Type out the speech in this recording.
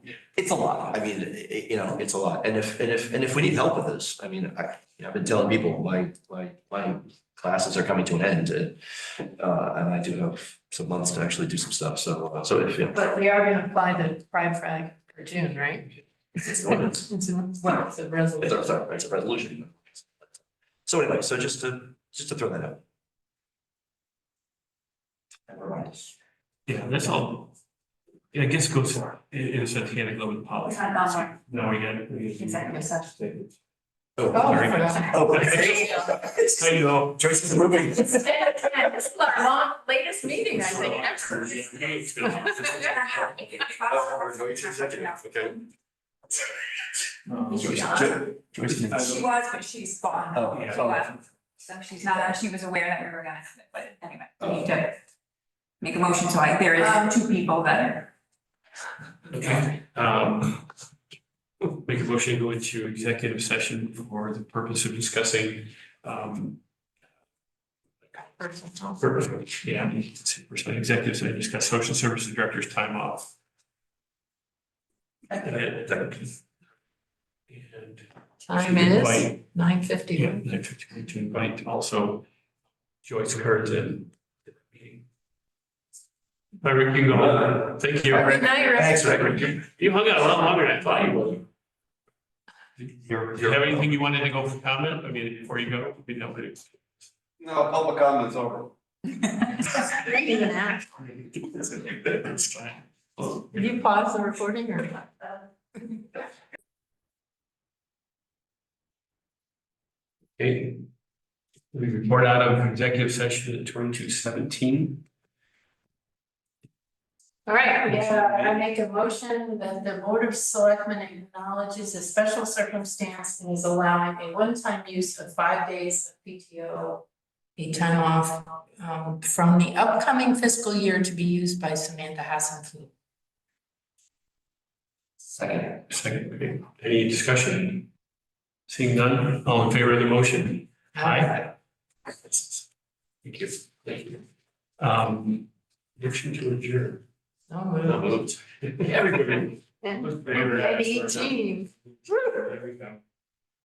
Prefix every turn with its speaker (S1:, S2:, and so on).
S1: It's a lot. I mean, i- i- you know, it's a lot. And if, and if, and if we need help with this, I mean, I, you know, I've been telling people, my, my, my classes are coming to an end. and, Uh, and I do have some months to actually do some stuff. So, uh, so if, yeah.
S2: But we are gonna apply the pride flag for June, right?
S1: It's an ordinance.
S2: It's, in- well, it's a
S1: It's a,
S2: resolution.
S1: sorry, it's a resolution. So anyway, so just to, just to throw that out. Never mind.
S3: Yeah, that's all. I guess it goes, in in a sense, hand in glove with policy.
S4: It's not that one.
S3: No, we got. we-
S4: Executive
S1: Oh,
S2: Oh,
S3: Very
S2: I forgot.
S1: okay.
S3: I know.
S1: Joyce is moving.
S4: This is our long- latest meeting, I think, ever.
S1: Okay.
S3: Um,
S4: She was- She was, but she's gone.
S1: Oh,
S3: yeah.
S4: She was. So she's not, she was aware that we were gonna have it, but anyway, we need to make a motion, so I, there is two people that.
S3: Okay, um. Make a motion to go into executive session for the purpose of discussing, um. Purpose, yeah, personal executives, I discuss social services director's time off. And. uh, and
S2: Time
S3: to
S2: is
S3: invite-
S2: nine fifty.
S3: Yeah, and to to invite also Joyce Curtin. to the meeting. Hi, Rick, you can go home. Thank you.
S1: Bye, Rick.
S2: Good night, Rick.
S1: Thanks, Rick.
S3: You hung out a lot longer than I thought you would. Do you have anything you wanted to go for comment? I mean, before you go, you know, but it's-
S5: No, public comment's over.
S3: it's fine. Well,
S2: Did you pause the recording or not?
S3: Okay. We report out of executive session at twenty-two seventeen.
S2: All right, yeah, I make a motion that the Board of Selectmen acknowledges a special circumstance and is allowing a one-time use of five days of PTO. A time off um, from the upcoming fiscal year to be used by Samantha Hassan
S1: Second.
S3: Second, okay. any discussion? Seeing none, all in favor of the motion? Aye. Thank you. Thank you. Um, motion to adjourn.
S2: No
S3: So
S2: move.
S3: moved. Everybody.
S2: And
S3: Everybody.
S2: Eugene.
S3: There we go.